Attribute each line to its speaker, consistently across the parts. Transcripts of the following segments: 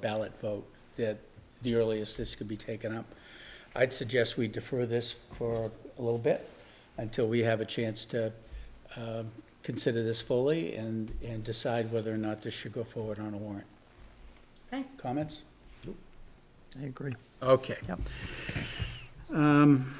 Speaker 1: ballot vote that the earliest this could be taken up. I'd suggest we defer this for a little bit until we have a chance to um, consider this fully and, and decide whether or not this should go forward on a warrant.
Speaker 2: Okay.
Speaker 1: Comments?
Speaker 3: I agree.
Speaker 1: Okay.
Speaker 3: Yep.
Speaker 1: Um,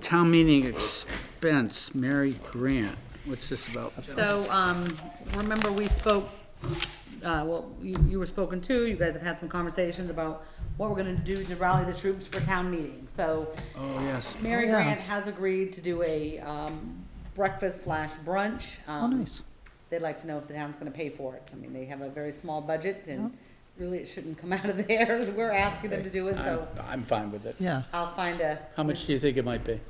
Speaker 1: Town meeting expense, Mary Grant, what's this about?
Speaker 2: So, um, remember we spoke, uh, well, you, you were spoken to, you guys have had some conversations about what we're gonna do to rally the troops for town meeting, so.
Speaker 1: Oh, yes.
Speaker 2: Mary
Speaker 3: Oh, yeah.
Speaker 2: Grant has agreed to do a, um, breakfast slash brunch.
Speaker 3: Oh,
Speaker 2: um,
Speaker 3: nice.
Speaker 2: They'd like to know if the town's gonna pay for it, I mean, they have a very small budget
Speaker 3: Oh.
Speaker 2: and really it shouldn't come out of theirs, we're asking them to do it,
Speaker 1: I'm,
Speaker 2: so
Speaker 1: I'm fine with it.
Speaker 3: Yeah,
Speaker 2: I'll find a.
Speaker 1: How much do you think it might be?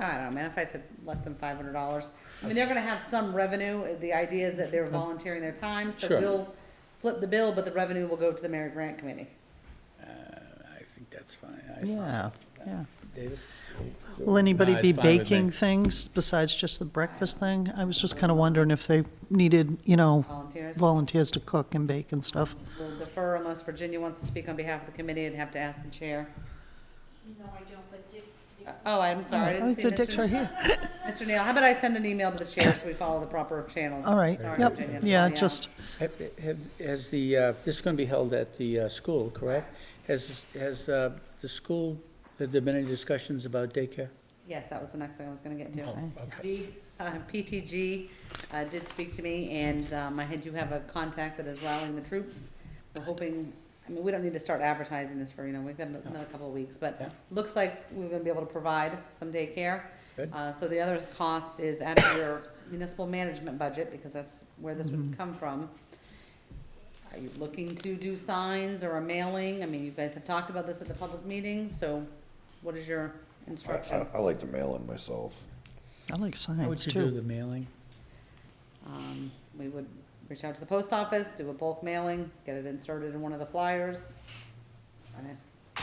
Speaker 2: I don't know, man, if I said less than five hundred dollars, I mean, they're gonna have some revenue, the idea is that they're volunteering their time, so
Speaker 1: Sure.
Speaker 2: we'll flip the bill, but the revenue will go to the Mary Grant Committee.
Speaker 1: I think that's fine. I-
Speaker 3: yeah, yeah.
Speaker 1: David?
Speaker 3: Will anybody
Speaker 1: No,
Speaker 3: be
Speaker 1: it's fine with me.
Speaker 3: baking things besides just the breakfast thing? I was just kind of wondering if they needed, you know,
Speaker 2: Volunteers.
Speaker 3: volunteers to cook and bake and stuff.
Speaker 2: We'll defer unless Virginia wants to speak on behalf of the committee, I'd have to ask the chair.
Speaker 4: No, I don't, but Dick, Dick,
Speaker 2: Oh, I'm sorry, I
Speaker 3: Oh,
Speaker 2: didn't
Speaker 3: it's
Speaker 2: see
Speaker 3: a dick's
Speaker 2: Mr.
Speaker 3: right here.
Speaker 2: Mr. Neal, how about I send an email to the chair so we follow the proper channels?
Speaker 3: All right,
Speaker 2: Sorry,
Speaker 3: yep,
Speaker 2: Virginia,
Speaker 3: yeah,
Speaker 2: sorry,
Speaker 3: just,
Speaker 1: Have- have- Has the, uh, this is going to be held at the uh, school, correct? Has, has uh, the school, have there been any discussions about daycare?
Speaker 2: Yes, that was the next thing I was gonna get to.
Speaker 1: Oh, Okay.
Speaker 2: The uh, PTG uh, did speak to me, and um, I do have a contact that is rallying the troops. We're hoping, I mean, we don't need to start advertising this for, you know, we've got another couple of weeks,
Speaker 1: Yeah.
Speaker 2: but looks like we're gonna be able to provide some daycare.
Speaker 1: Good.
Speaker 2: Uh, So the other cost is out of your municipal management budget, because that's where this
Speaker 1: Mm-hmm.
Speaker 2: would come from. Are you looking to do signs or a mailing? I mean, you guys have talked about this at the public meeting, so what is your
Speaker 5: I, I,
Speaker 2: instruction?
Speaker 5: I like to mail in myself.
Speaker 3: I like
Speaker 1: How
Speaker 3: signs
Speaker 1: would you do
Speaker 3: too.
Speaker 1: the mailing?
Speaker 2: Um, we would reach out to the post office, do a bulk mailing, get it inserted in one of the flyers. And it-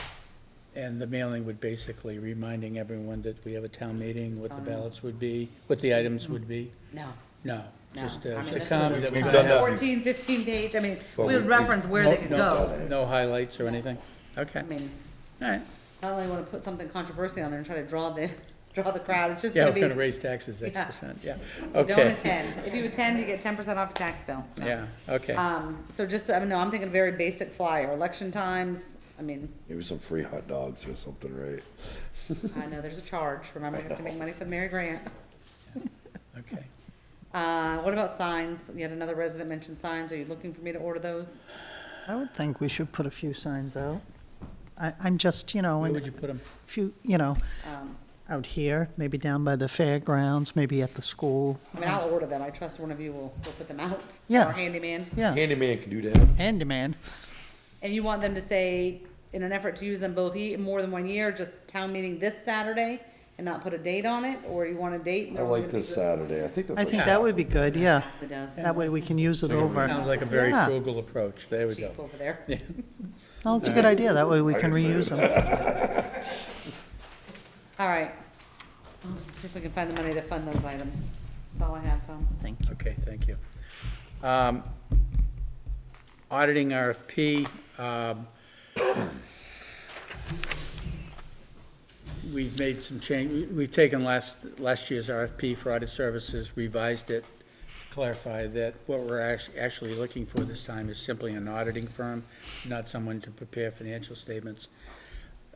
Speaker 1: And the mailing would basically reminding everyone that we have a town meeting, what the
Speaker 2: Sign.
Speaker 1: ballots would be, what the items would be?
Speaker 2: No,
Speaker 1: No,
Speaker 2: no.
Speaker 1: just uh,
Speaker 2: I mean,
Speaker 1: to
Speaker 2: this
Speaker 1: come
Speaker 2: is
Speaker 1: that
Speaker 2: a
Speaker 1: we're gonna
Speaker 5: We've done
Speaker 1: have-
Speaker 5: that.
Speaker 2: 14, 15 page, I mean,
Speaker 5: But
Speaker 2: we would
Speaker 5: we-
Speaker 2: reference where they
Speaker 1: No-
Speaker 2: could
Speaker 1: no-
Speaker 2: go.
Speaker 1: No highlights or anything? Okay,
Speaker 2: I mean,
Speaker 1: all right.
Speaker 2: not only wanna put something controversial on there and try to draw the, draw the crowd, it's just
Speaker 1: Yeah,
Speaker 2: gonna
Speaker 1: we're
Speaker 2: be,
Speaker 1: going to
Speaker 2: don't
Speaker 1: raise taxes X
Speaker 2: Yeah.
Speaker 1: percent, yeah. Okay,
Speaker 2: attend. If you attend, you get ten percent off your tax bill. No.
Speaker 1: yeah, okay.
Speaker 2: Um, so just, I mean, no, I'm thinking very basic flyer, election times, I mean,
Speaker 5: Maybe some free hot dogs or something, right?
Speaker 2: I know there's a charge, remember, we have to make money for the Mary Grant.
Speaker 1: Okay.
Speaker 2: Uh, what about signs? Yet another resident mentioned signs. Are you looking for me to order those?
Speaker 3: I would think we should put a few signs out. I, I'm just, you know,
Speaker 1: Where would
Speaker 3: and
Speaker 1: you put them?
Speaker 3: few, you know,
Speaker 2: Um,
Speaker 3: out here, maybe down by the fairgrounds, maybe at the school.
Speaker 2: I mean, I'll order them. I trust one of you will, will put them out.
Speaker 3: Yeah.
Speaker 2: Our handyman.
Speaker 3: Yeah,
Speaker 5: Handyman can do that.
Speaker 3: handyman.
Speaker 2: And you want them to say, in an effort to use them both ye- more than one year, just town meeting this Saturday and not put a date on it, or you want a date? and
Speaker 5: I
Speaker 2: they're only
Speaker 5: like
Speaker 2: gonna be
Speaker 5: this
Speaker 2: good-
Speaker 5: Saturday. I think that's.
Speaker 3: I
Speaker 5: what
Speaker 3: think
Speaker 5: she-
Speaker 3: that would be good, yeah.
Speaker 2: It does.
Speaker 3: That way we can use it
Speaker 1: Sounds
Speaker 3: over.
Speaker 1: like a very
Speaker 3: Yeah.
Speaker 1: frugal approach, there we go.
Speaker 2: Cheap over there.
Speaker 3: Well, it's a good idea, that way we can reuse them.
Speaker 2: All right. Oh, let's See if we can find the money to fund those items. That's all I have, Tom.
Speaker 3: Thank you.
Speaker 1: Okay, thank you. Um, Auditing RFP. um, We've made some change, we- we've taken last, last year's RFP for audit services, revised it, clarify that what we're act- actually looking for this time is simply an auditing firm, not someone to prepare financial statements.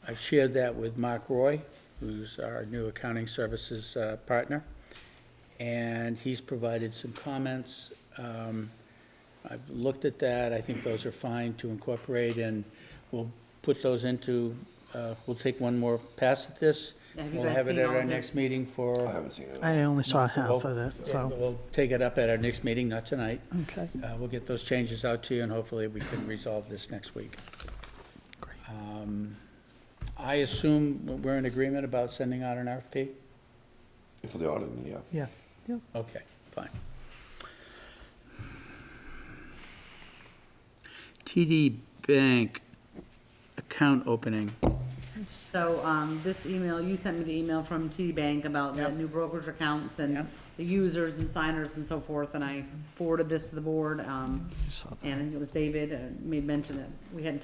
Speaker 1: I've shared that with Mark Roy, who's our new accounting services uh, partner and he's provided some comments. Um, I've looked at that, I think those are fine to incorporate, and we'll put those into, uh, we'll take one more pass at this.
Speaker 2: Have you
Speaker 1: We'll
Speaker 2: guys
Speaker 1: have it
Speaker 2: seen
Speaker 1: at
Speaker 2: all
Speaker 1: our
Speaker 2: of
Speaker 1: next
Speaker 2: this?
Speaker 1: meeting for.
Speaker 5: I haven't seen it.
Speaker 3: I only saw half
Speaker 1: We'll-
Speaker 3: of it, so,
Speaker 1: We'll take it up at our next meeting, not tonight.
Speaker 3: okay.
Speaker 1: Uh, We'll get those changes out to you, and hopefully we can resolve this next week.
Speaker 3: Great.
Speaker 1: Um, I assume we're in agreement about sending out an RFP?
Speaker 5: For the audit, yeah.
Speaker 3: Yeah,
Speaker 1: Okay, fine. TD Bank account opening.
Speaker 2: So, um, this email, you sent me the email from TD Bank about the
Speaker 1: Yep.
Speaker 2: new brokerage accounts
Speaker 1: Yep.
Speaker 2: and the users and signers and so forth, and I forwarded this to the board, um,
Speaker 3: saw that.
Speaker 2: and I think it was David, uh, made mention that we hadn't talked